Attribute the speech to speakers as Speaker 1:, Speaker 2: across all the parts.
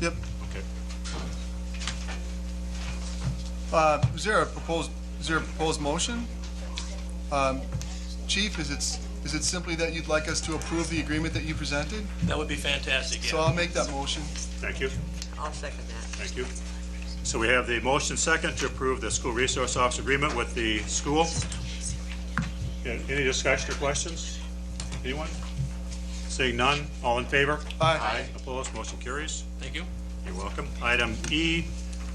Speaker 1: Yep.
Speaker 2: Okay.
Speaker 1: Uh, Is there a proposed, is there a proposed motion? Um, Chief, is it, s- is it simply that you'd like us to approve the agreement that you presented?
Speaker 3: That would be fantastic, yeah.
Speaker 1: So I'll make that motion.
Speaker 2: Thank you,
Speaker 4: I'll second that.
Speaker 2: thank you. So we have the motion second to approve the school resource officer agreement with the school. Yeah, Any discussion or questions? Anyone? Seeing none, all in favor?
Speaker 1: Aye.
Speaker 2: Opposed, motion carries.
Speaker 3: Thank you.
Speaker 2: You're welcome. Item E,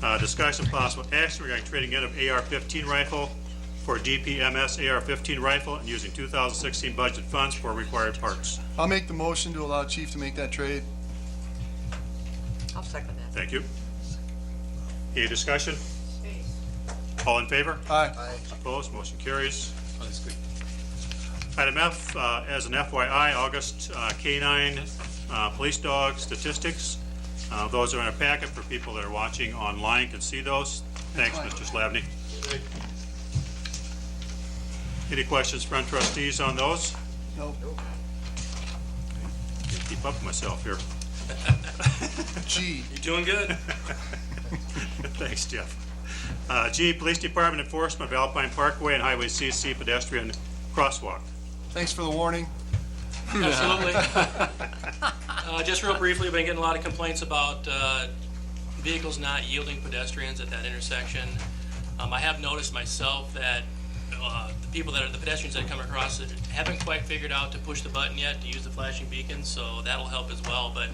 Speaker 2: uh, discussion possible action regarding trading in of AR-15 rifle for DPMS AR-15 rifle and using 2016 budget funds for required parts.
Speaker 1: I'll make the motion to allow Chief to make that trade.
Speaker 4: I'll second that.
Speaker 2: Thank you. Any discussion? All in favor?
Speaker 1: Aye.
Speaker 2: Opposed, motion carries. Item F, uh, as an FYI, August uh, K-9 uh, police dog statistics. Uh, Those are in a packet for people that are watching online can see those. Thanks, Mr. Slavny. Any questions from trustees on those?
Speaker 1: No.
Speaker 2: Can't Keep up with myself here.
Speaker 1: G,
Speaker 3: You're doing good.
Speaker 2: Thanks, Jeff. Uh, G, Police Department Enforcement of Alpine Parkway and Highway CC pedestrian crosswalk.
Speaker 1: thanks for the warning.
Speaker 3: Absolutely. Uh, Just real briefly, been getting a lot of complaints about uh, vehicles not yielding pedestrians at that intersection. Um, I have noticed myself that uh, the people that are, the pedestrians that come across it haven't quite figured out to push the button yet to use the flashing beacon, so that'll help as well. But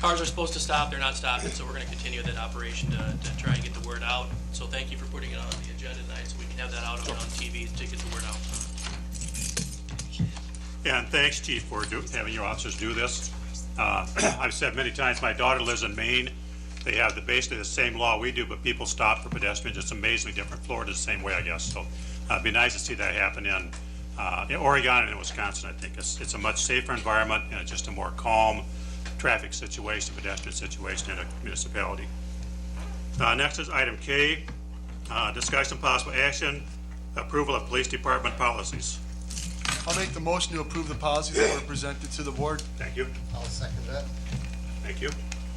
Speaker 3: cars are supposed to stop, they're not stopping, so we're going to continue that operation to to try and get the word out. So thank you for putting it on the agenda tonight, so we can have that out on TV to get the word out.
Speaker 2: And thanks, Chief, for do- having your officers do this. Uh, I've said many times, my daughter lives in Maine. They have the- basically the same law we do, but people stop for pedestrians. It's amazingly different. Florida's the same way, I guess. So uh, it'd be nice to see that happen in uh, in Oregon and in Wisconsin, I think. It's it's a much safer environment, and it's just a more calm traffic situation, pedestrian situation in a municipality. Uh, Next is item K, uh, discussion possible action, approval of police department policies.
Speaker 1: I'll make the motion to approve the policies that were presented to the board.
Speaker 2: Thank you.
Speaker 5: I'll second that.
Speaker 2: Thank you.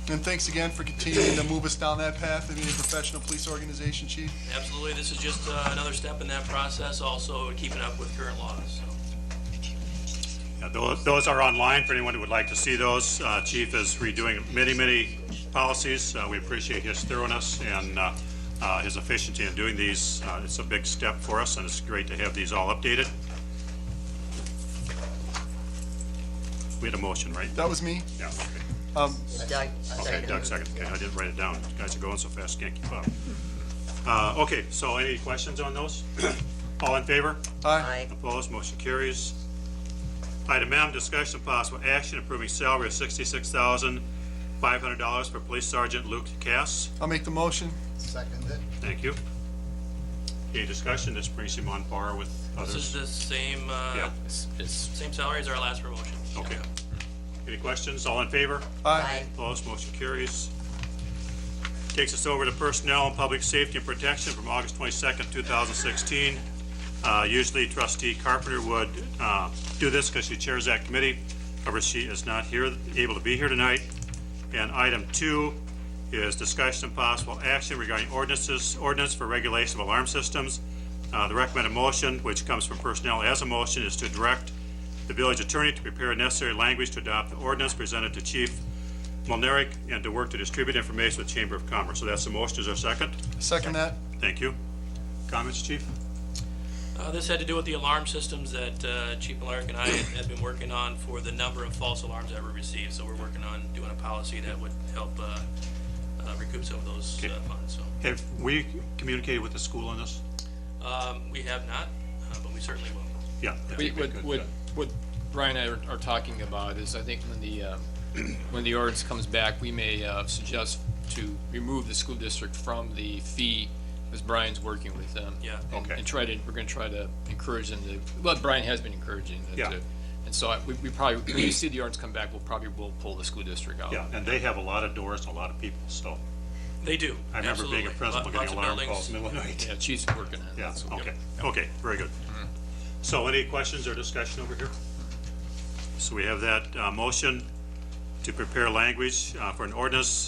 Speaker 1: And thanks again for continuing to move us down that path of being a professional police organization, Chief.
Speaker 3: Absolutely, this is just uh, another step in that process, also keeping up with current laws, so.
Speaker 2: Yeah, Those those are online for anyone who would like to see those. Uh, Chief is redoing many, many policies. Uh, We appreciate his thoroughness and uh, uh, his efficiency in doing these. Uh, It's a big step for us, and it's great to have these all updated. We had a motion, right?
Speaker 1: That was me.
Speaker 2: Yeah, okay.
Speaker 1: Um,
Speaker 4: Doug,
Speaker 2: Okay,
Speaker 4: second.
Speaker 2: Doug, second. Okay, I didn't write it down. You guys are going so fast, can't keep up. Uh, Okay, so any questions on those? All in favor?
Speaker 1: Aye.
Speaker 4: Aye.
Speaker 2: Opposed, motion carries. Item M, discussion of possible action approving salary of sixty-six thousand five hundred dollars for Police Sergeant Luke Cass.
Speaker 1: I'll make the motion.
Speaker 5: Second it.
Speaker 2: Thank you. Any discussion? This brings him on par with
Speaker 3: This
Speaker 2: others.
Speaker 3: is the same, uh,
Speaker 2: Yeah.
Speaker 3: it's- it's same salary as our last promotion.
Speaker 2: Okay. Any questions? All in favor?
Speaker 1: Aye.
Speaker 4: Aye.
Speaker 2: Opposed, motion carries. Takes us over to personnel and public safety and protection from August 22nd, 2016. Uh, Usually trustee Carpenter would uh, do this because she chairs that committee. However, she is not here, able to be here tonight. And item two is discussion and possible action regarding ordinances, ordinance for regulation of alarm systems. Uh, The recommended motion, which comes from personnel as a motion, is to direct the village attorney to prepare necessary language to adopt the ordinance presented to Chief Mulnerick and to work to distribute information with Chamber of Commerce. So that's the motion. Is there a second?
Speaker 1: Second that.
Speaker 2: Thank you. Comments, Chief?
Speaker 3: Uh, This had to do with the alarm systems that uh, Chief Malarick and I had had been working on for the number of false alarms that were received. So we're working on doing a policy that would help uh, uh, recoup some of those uh, funds, so.
Speaker 2: Have we communicated with the school on this?
Speaker 3: um, We have not, uh, but we certainly will.
Speaker 2: Yeah. I
Speaker 6: We,
Speaker 2: think
Speaker 6: what,
Speaker 2: could,
Speaker 6: what,
Speaker 2: uh,
Speaker 6: what Brian and I are, are talking about is, I think when the, uh, when the ordinance comes back, we may, uh, suggest to remove the school district from the fee, because Brian's working with them.
Speaker 3: Yeah.
Speaker 6: And-
Speaker 2: Okay.
Speaker 6: And try to, we're gonna try to encourage them to, well, Brian has been encouraging them
Speaker 2: Yeah.
Speaker 6: to. And so I, we, we probably, when you see the ordinance come back, we'll probably, will pull the school district out.
Speaker 2: Yeah, and they have a lot of doors and a lot of people, so
Speaker 3: They do,
Speaker 2: I remember being a
Speaker 3: absolutely.
Speaker 2: principal
Speaker 3: Lots
Speaker 2: getting
Speaker 3: of
Speaker 2: alarm
Speaker 3: buildings.
Speaker 2: calls middle of the night.
Speaker 6: Yeah, Chief's working on it.
Speaker 2: Yeah,
Speaker 6: so-
Speaker 2: okay, okay, very good.
Speaker 3: Mm-hmm.
Speaker 2: So any questions or discussion over here? So we have that uh, motion to prepare language uh, for an ordinance